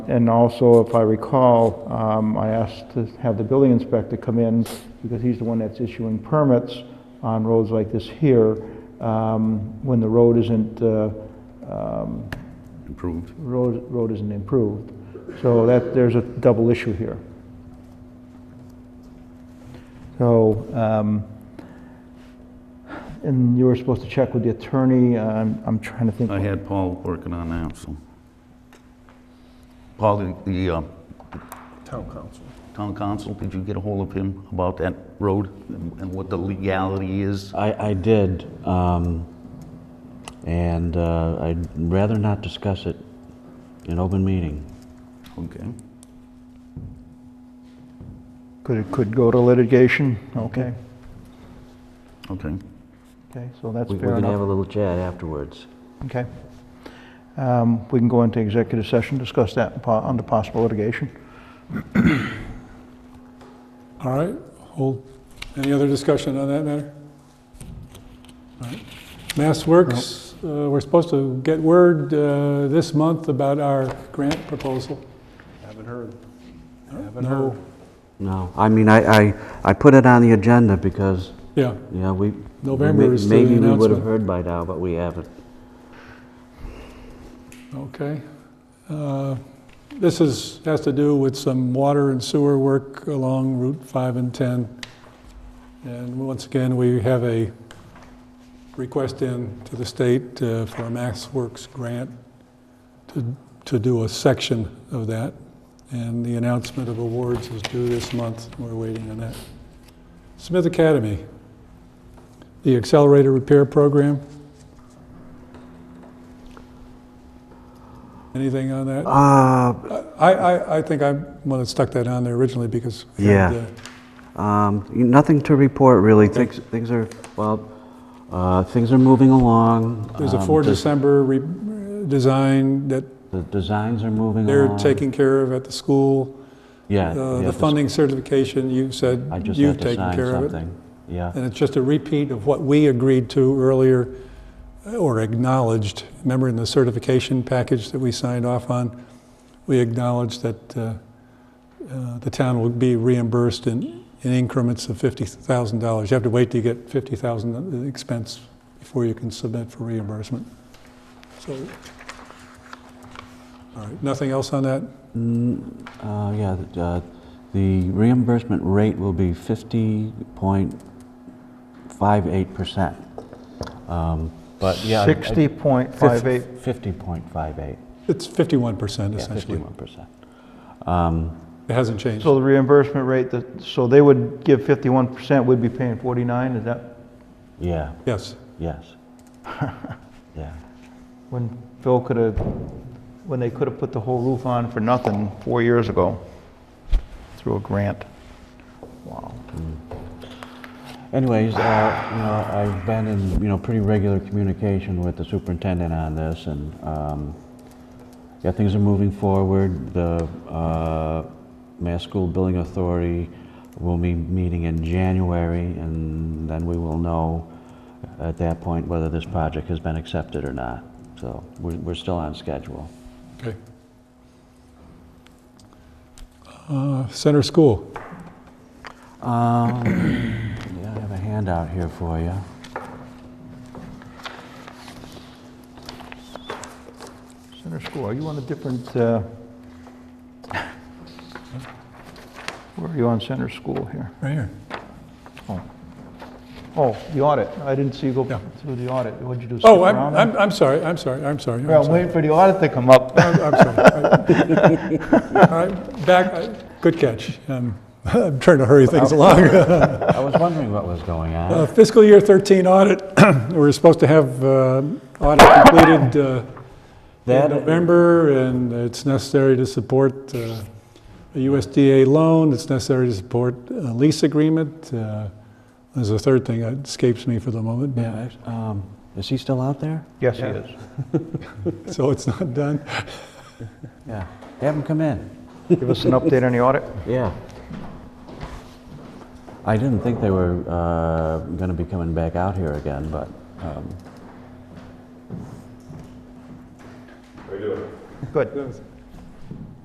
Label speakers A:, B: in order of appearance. A: And also, if I recall, um, I asked to have the building inspector come in, because he's the one that's issuing permits on roads like this here, um, when the road isn't, uh, um,
B: improved.
A: road, road isn't improved. So that, there's a double issue here. So, um, and you were supposed to check with the attorney, I'm, I'm trying to think.
B: I had Paul working on that, so. Paul, the- the uh,
C: Town council.
B: town council, did you get a hold of him about that road and and what the legality is?
D: I, I did, um, and uh, I'd rather not discuss it in open meeting.
B: Okay.
A: Could, it could go to litigation? Okay,
B: Okay.
A: okay, so that's
D: We-
A: fair
D: We're gonna have a
A: enough.
D: little chat afterwards.
A: Okay. Um, We can go into executive session, discuss that po- under possible litigation.
C: All right, hold, any other discussion on that matter? All right. Mass Works, uh, we're supposed to get word uh, this month about our grant proposal.
E: Haven't heard. Haven't
C: No,
E: heard.
D: No, I mean, I, I, I put it on the agenda because,
C: yeah,
D: you know, we.
C: November
D: may-
C: is the
D: Maybe we would have
C: announcement.
D: heard by now, but we haven't.
C: okay. Uh, This is, has to do with some water and sewer work along Route 5 and 10. And once again, we have a request in to the state uh, for a Mass Works grant to, to do a section of that. And the announcement of awards is due this month. We're waiting on that. Smith Academy, the accelerator repair program. Anything on that?
D: Uh,
C: I, I, I think I want to stuck that on there originally because. we had,
D: Yeah.
C: uh,
D: Um, Nothing to report, really. Things, things are, well, uh, things are moving along.
C: There's a
D: Um,
C: four
D: the-
C: December re- design that
D: The designs are moving
C: they're
D: along.
C: taking care of at the school.
D: Yeah.
C: Uh,
D: yeah,
C: The funding certification, you said
D: I just have
C: you've
D: to
C: taken
D: sign
C: care of it.
D: something. Yeah.
C: And it's just a repeat of what we agreed to earlier uh, or acknowledged. Remember in the certification package that we signed off on? We acknowledged that uh, uh, the town will be reimbursed in in increments of $50,000. You have to wait till you get $50,000 expense before you can submit for reimbursement. So, all right, nothing else on that?
D: Mm, uh, Yeah, th- uh, the reimbursement rate will be 50.58%. Um, But, yeah. I- I-
A: 60.58.
D: 50.58,
C: It's 51%
D: yeah,
C: essentially.
D: 51%. Um,
C: It hasn't changed.
A: So the reimbursement rate, that- so they would give 51%, we'd be paying 49, is that,
D: Yeah,
C: Yes.
D: yes. Yeah.
A: when Phil could have, when they could have put the whole roof on for nothing four years ago through a grant? Wow.
D: Anyways, uh, you know, I've been in, you know, pretty regular communication with the superintendent on this, and, um, yeah, things are moving forward. The uh, Mass School Building Authority will be meeting in January, and then we will know at that point whether this project has been accepted or not. So we're we're still on schedule.
C: Okay. Uh, Center School,
D: Um, Yeah, I have a handout here for you.
A: Center School, are you on a different, uh, where are you on Center School here?
C: right here.
A: Oh, the audit, I didn't see you go
C: Yeah.
A: through the audit, what'd you do? skip
C: Oh, I'm,
A: around?
C: I'm, I'm sorry, I'm sorry, I'm sorry. I'm
A: Well, I'm
C: sorry.
A: waiting for the audit to come up.
C: I'm I'm sorry. All right, back, I- good catch. Um, I'm trying to hurry things along.
D: I was wondering what was going on.
C: Uh, Fiscal year 13 audit, we were supposed to have uh, audit completed uh, in
D: That-
C: November, and it's necessary to support uh, a USDA loan, it's necessary to support a lease agreement. Uh, There's a third thing that escapes me for the moment, but-
D: Yeah, I- um, is he still out there?
A: Yes, he is.
C: so it's not done.
D: Yeah. Have him come in.
A: Give us an update on the audit.
D: Yeah. I didn't think they were uh, going to be coming back out here again, but. Um,
A: Good.